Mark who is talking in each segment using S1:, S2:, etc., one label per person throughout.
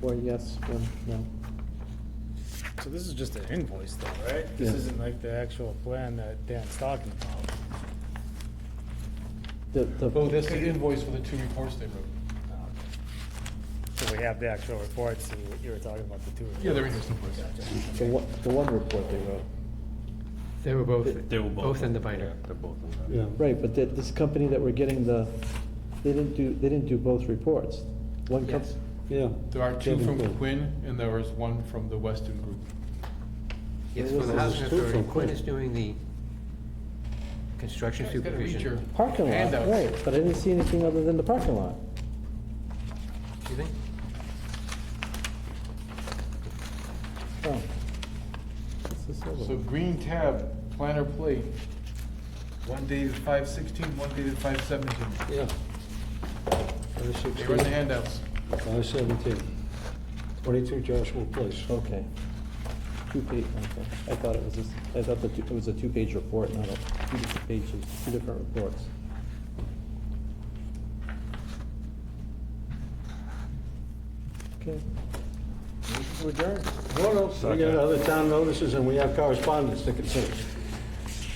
S1: Four yes, one no.
S2: So this is just an invoice though, right? This
S1: Yeah.
S2: isn't like the actual plan that Dan's talking about.
S1: The, the.
S3: Oh, that's the invoice for the two reports they wrote.
S2: Um, So we have the actual reports, so you were talking about the two.
S3: Yeah, they're in
S2: reports.
S3: his reports.
S1: The one, the one report they wrote.
S4: They were both,
S5: They were both.
S4: both in the binder.
S5: Yeah, They're both in the
S6: Yeah.
S1: Right, but that, this company that we're getting the, they didn't do, they didn't do both reports. One com-
S4: Yes.
S6: Yeah.
S3: There are two from
S6: Kevin Quinn.
S3: Quinn, and there was one from the Weston Group.
S4: Yes,
S6: Yeah,
S4: for the
S6: this is
S4: housing
S6: two
S4: authority,
S6: from
S4: Quinn
S6: Quinn.
S4: is doing the construction
S3: Guys, gotta read your-
S4: supervision.
S1: Parking lot,
S3: Handouts.
S1: right, but I didn't see anything other than the parking lot.
S4: Do you think?
S1: Oh. What's this other
S3: So
S1: one?
S3: green tab, planner plate, one dated five sixteen, one dated five seventeen.
S6: Yeah.
S3: They were in the handouts.
S6: Five seventeen. Twenty-two Joshua Place.
S1: Okay. Two page, okay. I thought it was, this- I thought that it was a two-page report, not a, two different pages, two different reports. Okay.
S6: No, no, we got other town notices and we have correspondence to consider.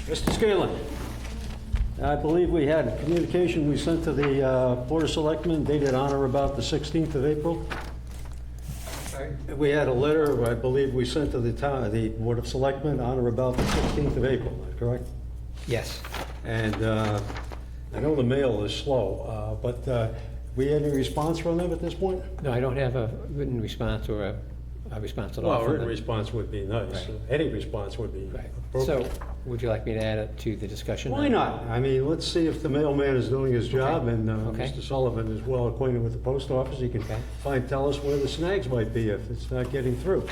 S6: Mr. Scanlon, I believe we had a communication we sent to the uh, Board of Selectmen dated on or about the 16th of April. We had a letter, I believe, we sent to the town, the Board of Selectmen on or about the 16th of April, am I correct?
S4: Yes.
S6: And uh, I know the mail is slow, uh, but uh, we had any response from them at this point?
S4: No, I don't have a written response or a, a response at all.
S6: Well,
S4: from
S6: written
S4: them.
S6: response would be nice.
S4: Right.
S6: Any response would be
S4: Right. So,
S6: appropriate.
S4: would you like me to add it to the discussion?
S6: Why not? I mean, let's see if the mailman is doing his job, and uh,
S4: Okay.
S6: Mr. Sullivan is well acquainted with the post office. He can
S4: Okay.
S6: find, tell us where the snags might be if it's not getting through.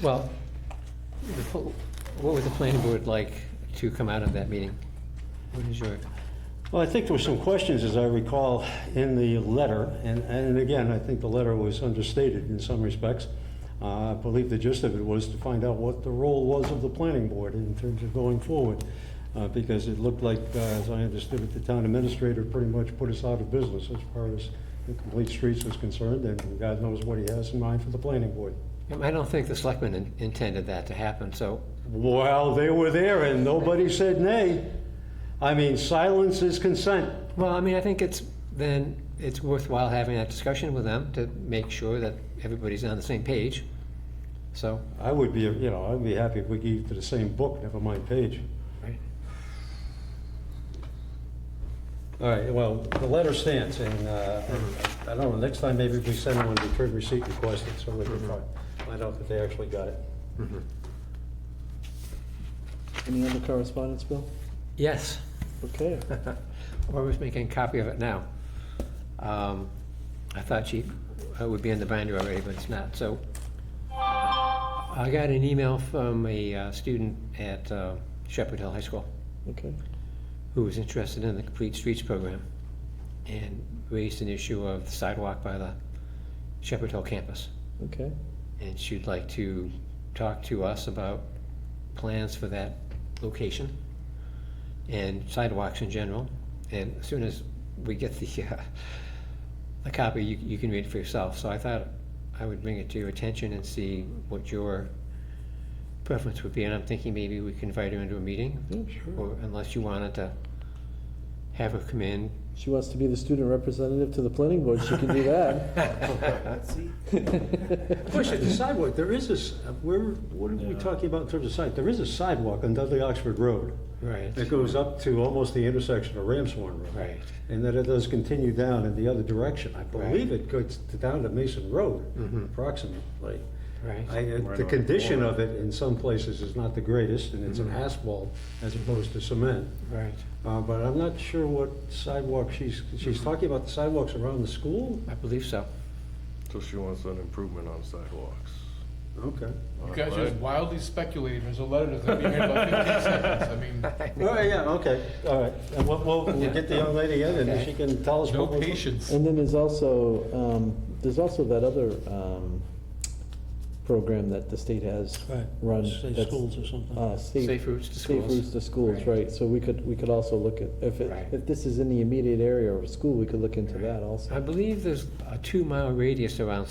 S4: Well, the pl- what would the planning board like to come out of that meeting? What is your,
S6: Well, I think there were some questions, as I recall, in the letter, and, and again, I think the letter was understated in some respects. Uh, I believe the gist of it was to find out what the role was of the planning board in terms of going forward, uh, because it looked like, uh, as I understood it, the town administrator pretty much put us out of business as far as the complete streets was concerned, and God knows what he has in mind for the planning board.
S4: I don't think the selectmen in- intended that to happen, so
S6: Well, they were there, and nobody said nay. I mean, silence is consent.
S4: Well, I mean, I think it's, then, it's worthwhile having that discussion with them to make sure that everybody's on the same page. So,
S6: I would be, you know, I'd be happy if we gave to the same book, never mind page.
S4: Right.
S6: All right, well, the letter stands, and uh, I don't know, next time maybe we send one return receipt requested, so we can find- find out that they actually got it.
S1: Any other correspondence, Bill?
S4: yes,
S1: Okay.
S4: or was making a copy of it now. Um, I thought she uh, would be in the binder already, but it's not, so. I got an email from a uh, student at uh, Shepherd Hill High School.
S1: Okay.
S4: who was interested in the Complete Streets program and raised an issue of the sidewalk by the Shepherd Hill campus.
S1: Okay.
S4: And she'd like to talk to us about plans for that location and sidewalks in general. And as soon as we get the, uh, the copy, you, you can read it for yourself. So I thought I would bring it to your attention and see what your preference would be. And I'm thinking maybe we can invite her into a meeting. Or unless you wanted to have her come in.
S1: She wants to be the student representative to the planning board, she can do that.
S6: Question, the sidewalk, there is this, where, what are we talking about in terms of site? There is a sidewalk on Dudley Oxford Road
S4: Right.
S6: that goes up to almost the intersection of Ramshorn Road.
S4: Right.
S6: And then it does continue down in the other direction. I believe
S4: Right.
S6: it goes to- down to Mason Road approximately.
S4: Right.
S6: I- uh, The condition of it in some places is not the greatest, and it's an asphalt as opposed to cement.
S4: Right.
S6: Uh, But I'm not sure what sidewalk she's, she's talking about the sidewalks around the school?
S4: I believe so.
S5: So she wants an improvement on sidewalks.
S6: Okay.
S3: You guys are just wildly speculating, there's a letter that's gonna be here in about fifteen seconds, I mean,
S6: All right, yeah, okay, all right. And we'll, we'll we'll get the young lady in, and then she can tell us
S3: no
S6: what we're...
S3: patience.
S1: And then there's also, um, there's also that other, um, program that the state has
S6: Right.
S1: run.
S6: Say
S1: that's,
S6: schools or something.
S1: Uh, state.
S4: Safe routes to
S1: Safe
S4: schools.
S1: routes to schools, right, so we could, we could also look at, if it,
S4: Right.
S1: if this is in the immediate area of a school, we could look into that also.
S4: I believe there's a two-mile radius around